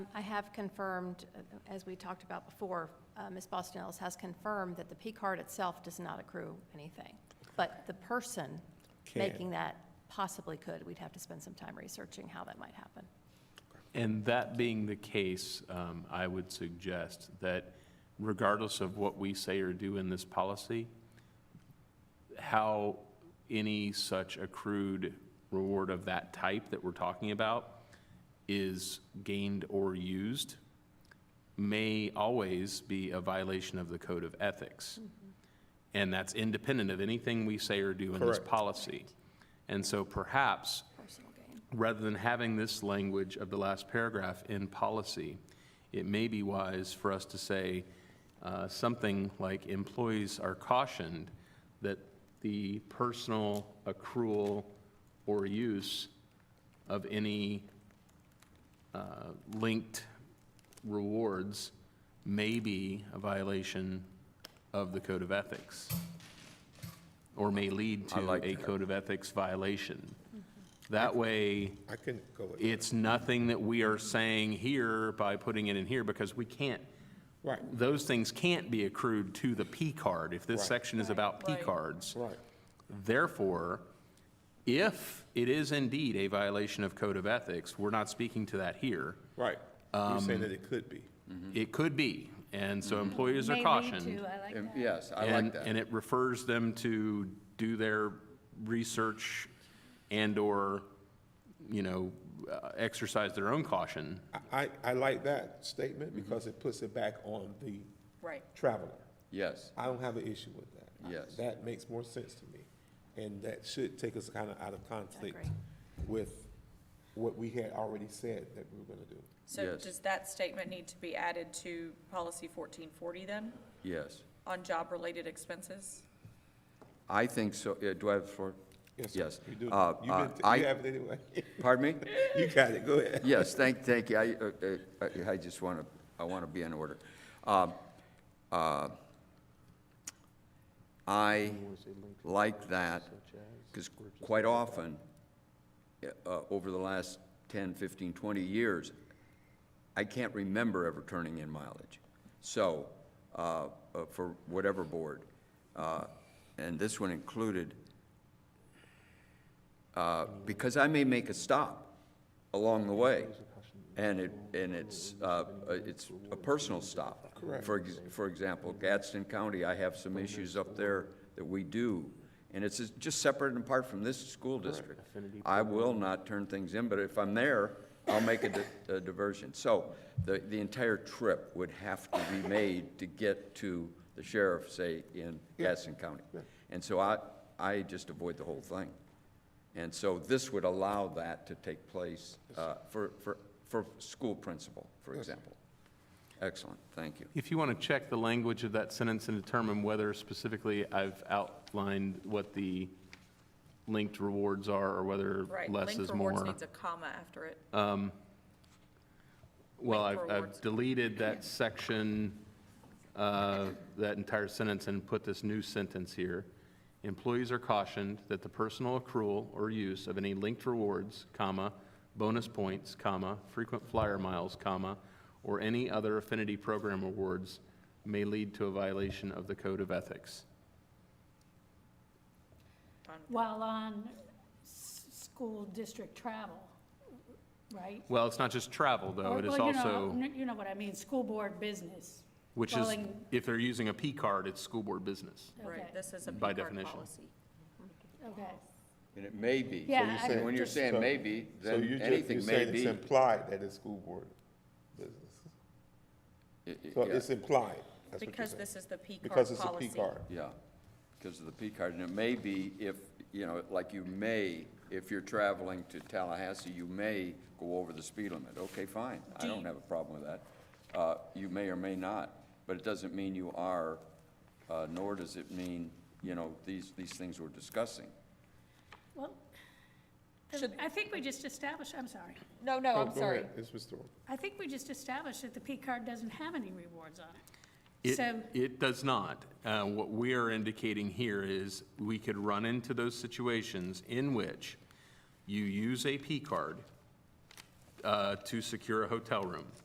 I have confirmed, uh, as we talked about before, uh, Ms. Bostonellis has confirmed that the P card itself does not accrue anything. But the person Can. making that possibly could. We'd have to spend some time researching how that might happen. And that being the case, um, I would suggest that regardless of what we say or do in this policy, how any such accrued reward of that type that we're talking about is gained or used may always be a violation of the code of ethics. And that's independent of anything we say or do in this Correct. policy. And so perhaps Personal gain. rather than having this language of the last paragraph in policy, it may be wise for us to say uh, something like employees are cautioned that the personal accrual or use of any uh, linked rewards may be a violation of the code of ethics or may lead I to like a that. code of ethics violation. That way, I couldn't go with that. it's nothing that we are saying here by putting it in here because we can't, Right, those things can't be accrued to the P card if this Right. section is about P cards. right. Therefore, if it is indeed a violation of code of ethics, we're not speaking to that here. Right. You're saying Um, that it could be. Mm-hmm. It could be, and so employers are May lead cautioned. to, I like And- that. Yes, Mm-hmm. I like And, and that. it refers them to do their research and/or, you know, uh, exercise their own caution. I, I like that statement Mm-hmm. because it puts it back on the Right. traveler. Yes, I don't have an issue with that. Yes. That makes more sense to me. And that should take us kind of out of conflict agree. with what we had already said that we were going to do. So Yes. does that statement need to be added to policy fourteen forty then, yes. on job-related expenses? I think so, yeah, do I have the floor? sir, Yes. You do. Uh, You've uh, been- I- You have it anyway. Pardon me? You got it, go ahead. Yes, thank, thank you. I, uh, uh, I just want to, I want to be in order. Um, uh, I like that, because quite often, uh, over the last 10, 15, 20 years, I can't remember ever turning in mileage. So, uh, uh, for whatever board, uh, and this one included, uh, because I may make a stop along the way, and it, and it's, uh, it's a personal stop. Correct. For, ex- for example, Gadsden County, I have some issues up there that we do, and it's just separate and apart from this school district. I will not turn things in, but if I'm there, I'll make a di- a diversion. So the, the entire trip would have to be made to get to the sheriff, say, in Gadsden County. And so I, I just avoid the whole thing. And so this would allow that to take place uh, for, for, for school principal, for example. Excellent, thank you. If you want to check the language of that sentence and determine whether specifically I've outlined what the linked rewards are or whether Right, less linked is rewards more. Uh, needs a comma after it. Well, linked I've, I've rewards. deleted that section, uh, that entire sentence and put this new sentence here. Employees are cautioned that the personal accrual or use of any linked rewards, comma, bonus points, comma, frequent flyer miles, comma, or any other affinity program awards may lead to a violation of the code of ethics. While on s- school district travel, right? Well, it's not just travel, though, Or- it is well, you know, also, n- You know what I mean, school board business. which is, calling- if they're using a P card, it's school board business. Right, Okay, this is a P By card definition. policy. okay. And it may be. Yeah, So you're I- saying- When you're saying maybe, So you then just- anything may You're saying it's be. implied that it's school board business. I- I- So yeah, it's implied, that's what you're Because saying. this is the P card policy. Oh, Because it's a P card. Yeah, because of the P card, and it may be if, you know, like you may, if you're traveling to Tallahassee, you may go over the speed limit. Okay, fine, I Do don't you- have a problem with that. Uh, You may or may not, but it doesn't mean you are, uh, nor does it mean, you know, these, these things we're discussing. Well, Should- I think we just established, I'm sorry, No, no, Oh, I'm go sorry. ahead. It's restored. I think we just established that the P card doesn't have any rewards on it. It, So, it does not. Uh, What we are indicating here is we could run into those situations in which you use a P card uh, to secure a hotel room.